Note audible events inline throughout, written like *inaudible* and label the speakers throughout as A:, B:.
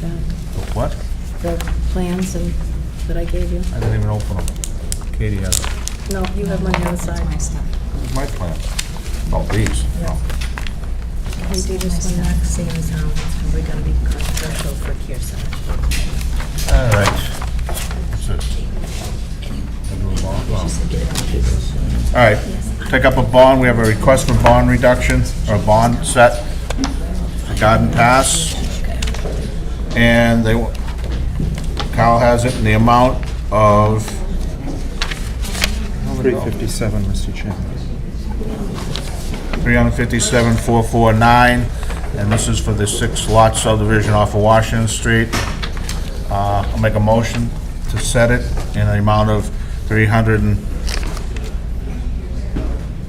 A: the,
B: What?
A: the plans and, that I gave you?
B: I didn't even open them. Katie has it.
A: No, you have mine on the other side.
C: That's my stuff.
B: Where's my plan? Oh, these. Oh.
A: We do this one next.
C: Same as how it's probably gonna be controversial for Kearsarge.
B: All right. So, I'll do a bond. All right, take up a bond, we have a request for bond reduction, or a bond set for Garden Pass. And they, wa- Kyle has it in the amount of,
D: 357, Mr. Chairman.
B: 357,449, and this is for the six-lot subdivision off of Washington Street. Uh, I'll make a motion to set it in the amount of 300 and,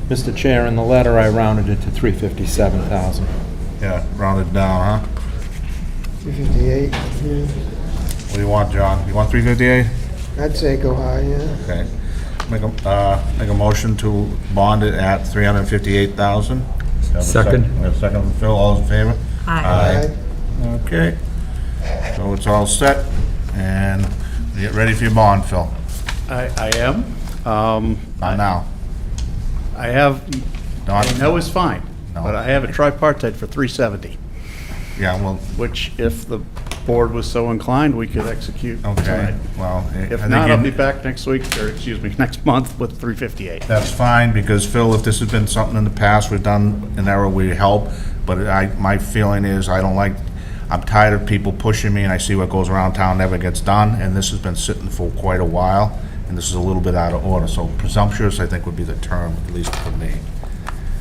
D: Mr. Chair, in the letter, I rounded it to 357,000.
B: yeah, rounded down, huh?
E: 258, yeah.
B: What do you want, John? You want 358?
E: I'd say go high, yeah.
B: Okay. Make a, uh, make a motion to bond it at 358,000. We have a
D: Second.
B: We have a second from Phil, all in favor?
E: Aye.
B: Okay. So it's all set, and get ready for your bond, Phil.
F: I, I am. Um,
B: Not now.
F: I have,
B: Not-
F: I know it's fine,
B: No.
F: but I have a tripartite for 370,
B: Yeah, well,
F: which if the board was so inclined, we could execute.
B: okay,
F: tonight.
B: well. I- I
F: If
B: think
F: not,
B: you-
F: I'll be back next week, or excuse me, *laughs* next month with 358.
B: That's fine, because Phil, if this has been something in the past we've done, an error, we help, but I, my feeling is, I don't like, I'm tired of people pushing me, and I see what goes around town never gets done, and this has been sitting for quite a while, and this is a little bit out of order, so presumptuous, I think, would be the term, at least for
F: *laughs*
B: me.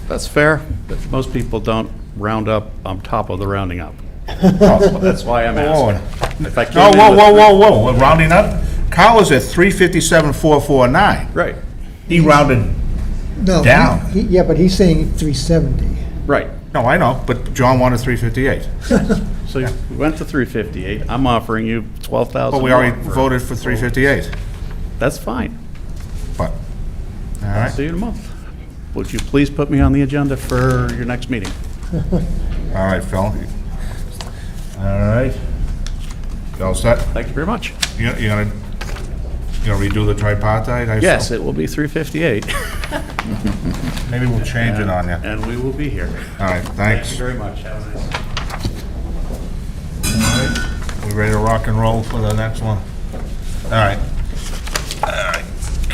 F: That's fair, but most people don't round up on top of the rounding up. That's why I'm asking. If I came
B: Oh,
F: in
B: whoa,
F: with
B: whoa,
F: three-
B: whoa, whoa, we're rounding up? Kyle is at three fifty-seven, four four nine.
F: Right,
B: He rounded,
E: No.
B: Down.
E: he- Yeah, but he's saying 370.
F: right.
B: no, I know, but John wanted three fifty-eight.
F: So you went to 358. I'm offering you 12,000
B: But we already
F: more for-
B: voted for three fifty-eight,
F: That's fine.
B: but, all right.
F: See you in a month. Would you please put me on the agenda for your next meeting?
B: All right, Phil. All right. You all set?
F: Thank you very much.
B: You- You're gonna, you gonna redo the tripartite? I assume?
F: Yes, it will be 3:58,
B: Maybe we'll change it on you. All
F: *laughs* and we will be here.
B: right,
F: Thank you
B: thanks.
F: very much. Have a nice day.
B: We ready to rock and roll for the next one? All right. All right,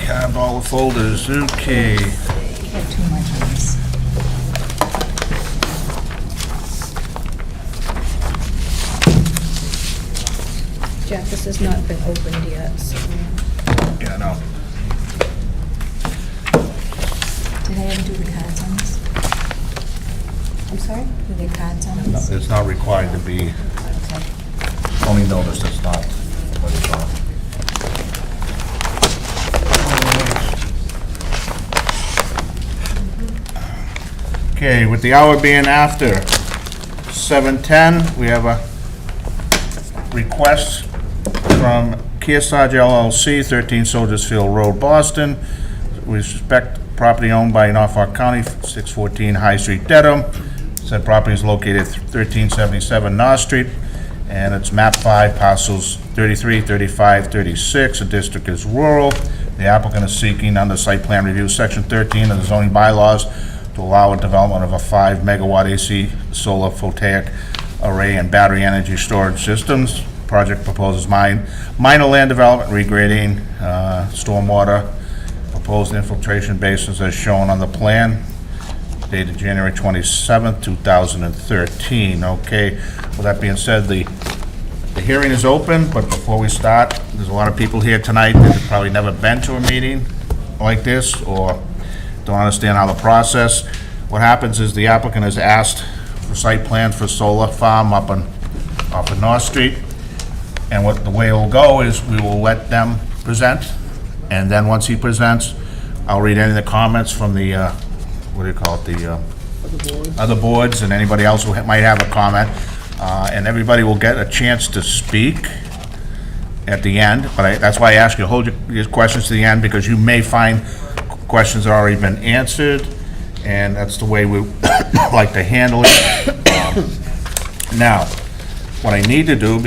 B: grab all the folders, okay.
C: You have too much on this.
A: Jack, this has not been opened yet, so.
B: Yeah, no.
C: Did I ever do the cards on this? I'm sorry? Do the cards on this?
B: It's not required to be,
C: Okay.
B: only notice it's not, what it's on. Okay, with the hour being after 7:10, we have a request from Kearsarge LLC, 13 Soldiers Field Road, Boston, with respect property owned by Norfolk County, 614 High Street, Dedham. Said property is located at 1377 North Street, and it's map 5, parcels 33, 35, 36. The district is rural. The applicant is seeking under site plan review, section 13 of the zoning bylaws, to allow a development of a 5-megawatt AC solar photovoltaic array and battery energy storage systems. Project proposes mine, minor land development, regrading, uh, stormwater, proposed infiltration basins as shown on the plan dated January 27th, 2013. Okay, with that being said, the, the hearing is open, but before we start, there's a lot of people here tonight that have probably never been to a meeting like this, or don't understand how the process. What happens is the applicant is asked for site plan for solar farm up on, up on North Street. And what, the way it'll go is we will let them present, and then once he presents, I'll read any of the comments from the, uh, what do you call it, the, uh, other boards, and anybody else who ha- might have a comment, uh, and everybody will get a chance to speak at the end, but I, that's why I ask you, hold your, your questions to the end, because you may find questions that already been answered, and that's the way we *coughs* like to handle it. Um, Now, what I need to do,